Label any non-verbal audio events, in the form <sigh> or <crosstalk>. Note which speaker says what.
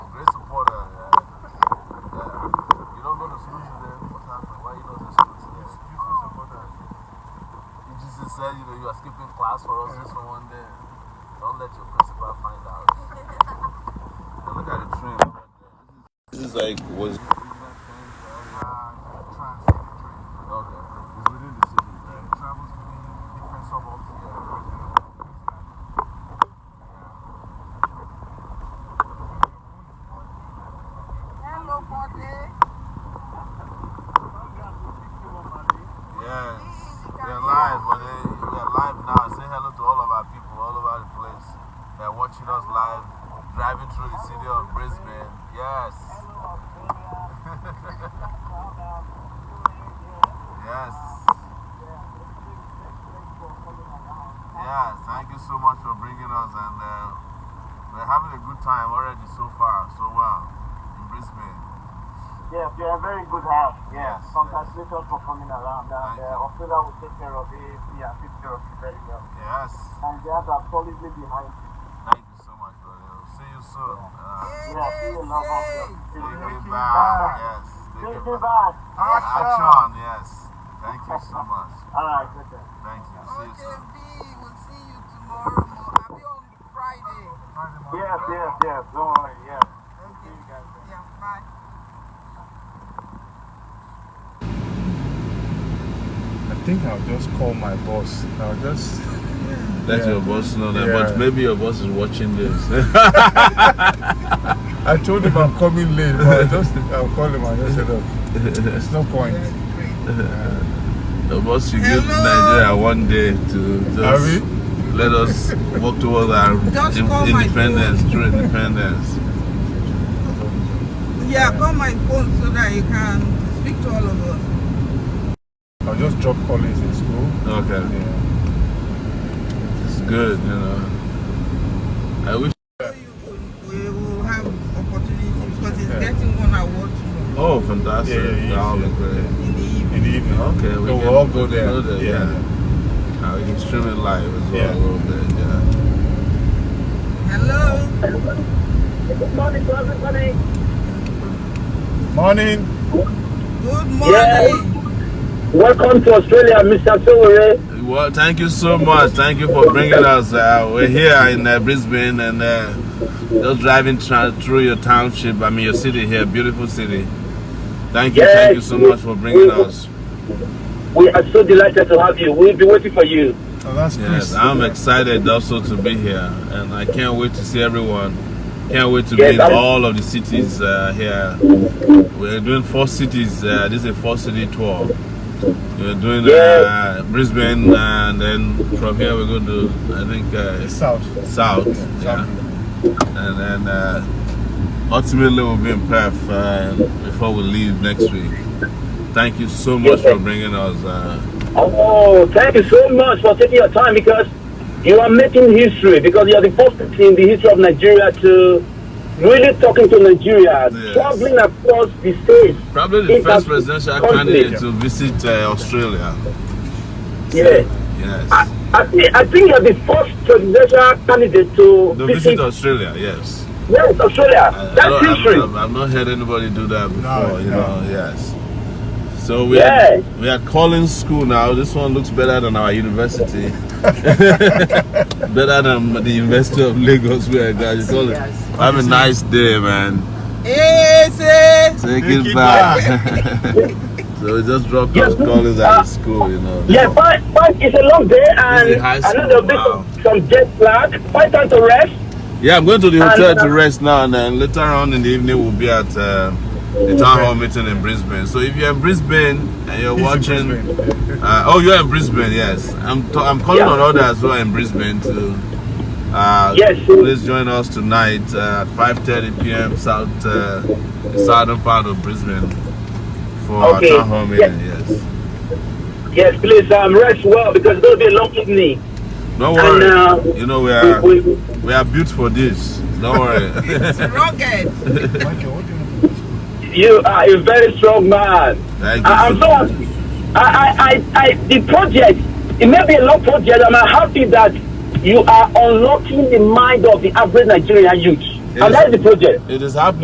Speaker 1: tell you that you are skipping class for us just for one day. Don't let your principal find
Speaker 2: <laughs>
Speaker 1: out. And look at the train.
Speaker 3: This is like was
Speaker 1: Okay.
Speaker 2: It's within the city, right?
Speaker 4: Hello, party.
Speaker 1: Yes. They're live, but they, we are live now. Say hello to all of our people all over the place. They're watching us live, driving through the city of Brisbane. Yes. <laughs> yes. Yeah, thank you so much for bringing us, and uh, we're having a good time already so far, so well in Brisbane.
Speaker 5: Yes, you are a very good house. Yes.
Speaker 1: Yes,
Speaker 5: Congratulations for coming around.
Speaker 1: Thank
Speaker 5: And
Speaker 1: you.
Speaker 5: uh, Ophelia will take care of it. Yeah, take care of it very well.
Speaker 1: Yes,
Speaker 5: And the others are solidly behind you.
Speaker 1: thank you so much, brother. See you soon. Uh,
Speaker 5: Yeah, see you love of them.
Speaker 1: take it
Speaker 5: Take it
Speaker 1: back.
Speaker 5: back.
Speaker 1: Yes, take it
Speaker 5: Take it
Speaker 1: back.
Speaker 5: back.
Speaker 1: Action, yes. Thank you so much.
Speaker 5: All right, okay.
Speaker 1: Thank you. See you soon.
Speaker 4: OJB, we'll see you tomorrow morning. I'll be on Friday.
Speaker 5: Yes, yes, yes. Don't worry. Yes.
Speaker 4: Okay.
Speaker 5: you guys then.
Speaker 4: Yeah, bye.
Speaker 2: I think I'll just call my boss. I'll just.
Speaker 3: let
Speaker 2: Yeah.
Speaker 3: your boss know that,
Speaker 2: Yeah.
Speaker 3: but maybe your boss is watching this. <laughs>
Speaker 2: I told him I'm coming late, but I just I'll call him. I just said, "Look, it's no point. Uh,
Speaker 3: your boss should give Nigeria one day to
Speaker 2: are
Speaker 3: just
Speaker 2: we?
Speaker 3: let us work towards our
Speaker 4: Just
Speaker 3: in-
Speaker 4: call my
Speaker 3: independence, true independence.
Speaker 4: Yeah, call my phone so that you can speak to all of us.
Speaker 2: I'll just drop Collins in school.
Speaker 3: Okay,
Speaker 2: Yeah.
Speaker 3: it's good, you know. I wish.
Speaker 4: So you will, we will have opportunity because he's getting one award tomorrow
Speaker 3: Oh, fantastic!
Speaker 2: Yeah, yeah, yeah.
Speaker 3: That would be great.
Speaker 4: in the evening.
Speaker 2: In the evening.
Speaker 3: Okay, we
Speaker 2: so
Speaker 3: can
Speaker 2: we'll all go there.
Speaker 3: go there, yeah. Uh, we can stream it live as well
Speaker 2: Yeah.
Speaker 3: a little bit. Yeah.
Speaker 4: Hello.
Speaker 2: Morning.
Speaker 4: Good
Speaker 6: Yeah.
Speaker 4: morning.
Speaker 6: Welcome to Australia, Mr. Sowore.
Speaker 3: Well, thank you so much. Thank you for bringing us. Uh, we're here in uh, Brisbane and uh, just driving tra- through your township. I mean, your city here, beautiful city. Thank you, thank you so much for bringing us.
Speaker 6: We are so delighted to have you. We'll be waiting for you.
Speaker 2: Oh, that's
Speaker 3: Yes,
Speaker 2: Chris.
Speaker 3: I'm excited also to be here, and I can't wait to see everyone. Can't wait to
Speaker 6: Yes,
Speaker 3: be in
Speaker 6: I'm-
Speaker 3: all of the cities uh, here. We're doing four cities. Uh, this is a four city tour. We're doing uh,
Speaker 6: Yes.
Speaker 3: Brisbane, uh, and then from here we're going to, I think, uh,
Speaker 2: South.
Speaker 3: south. Yeah. And then uh, ultimately we'll be in Perth uh, before we leave next week. Thank you so much for bringing us. Uh,
Speaker 6: Oh, thank you so much for taking your time because you are making history because you are the first person in the history of Nigeria to really talking to Nigeria,
Speaker 3: Yes.
Speaker 6: traveling across the states.
Speaker 3: probably the
Speaker 6: Yes,
Speaker 3: first
Speaker 6: I'm-
Speaker 3: presidential
Speaker 6: Country.
Speaker 3: candidate to visit uh, Australia.
Speaker 6: Yes. I,
Speaker 3: Yes.
Speaker 6: I, thi- I think you are the first presidential candidate to
Speaker 3: To visit Uh, Australia, yes.
Speaker 6: yes, Australia.
Speaker 3: I- I
Speaker 6: That's
Speaker 3: don't- I've,
Speaker 6: history.
Speaker 3: I've- I've not heard anybody do that before, you
Speaker 2: no.
Speaker 3: know, yes. So we,
Speaker 6: Yeah.
Speaker 3: are, we are calling school now. This one looks better than our <laughs> university. better than the University of Lagos where I graduated. Have a nice day, man.
Speaker 4: Hey, say.
Speaker 3: <laughs> Take,
Speaker 2: Take
Speaker 3: it,
Speaker 2: it
Speaker 3: back. <laughs> so we just dropped
Speaker 6: Yeah.
Speaker 3: off Collins
Speaker 6: Uh,
Speaker 3: at the school, you know.
Speaker 6: Yeah, but, but it's a long day and
Speaker 3: high school,
Speaker 6: another bit
Speaker 3: wow.
Speaker 6: of some jet lag. Quite time to rest.
Speaker 3: Yeah, I'm going to the hotel
Speaker 6: And, uh,
Speaker 3: to rest now, and then later on in the evening we'll be at uh, the town hall meeting in Brisbane. So if you're in Brisbane and you're watching, uh, oh, you're in Brisbane, yes. I'm t- I'm calling
Speaker 6: Yeah.
Speaker 3: on others who are in Brisbane to. Uh,
Speaker 6: Yes.
Speaker 3: Please join us tonight uh, at 5:30 p.m. south uh, the southern part of Brisbane for
Speaker 6: Okay.
Speaker 3: our town hall meeting.
Speaker 6: Yeah.
Speaker 3: Yes.
Speaker 6: Yes, please um, rest well because it's going to be a long evening.
Speaker 3: Don't worry.
Speaker 6: And, uh,
Speaker 3: you know we are
Speaker 6: We, we,
Speaker 3: we are built for this. Don't worry. <laughs>
Speaker 4: It's rugged.
Speaker 2: Michael, what do you want to do?
Speaker 6: you are a very strong man.
Speaker 3: Thank you
Speaker 6: I, I'm
Speaker 3: so
Speaker 6: so
Speaker 3: much.
Speaker 6: happy. I, I, I, I, the project, it may be a long project. and I'm happy that you are unlocking the mind of the average Nigerian youth.
Speaker 3: Yes.
Speaker 6: And that's the project.
Speaker 3: It is happening.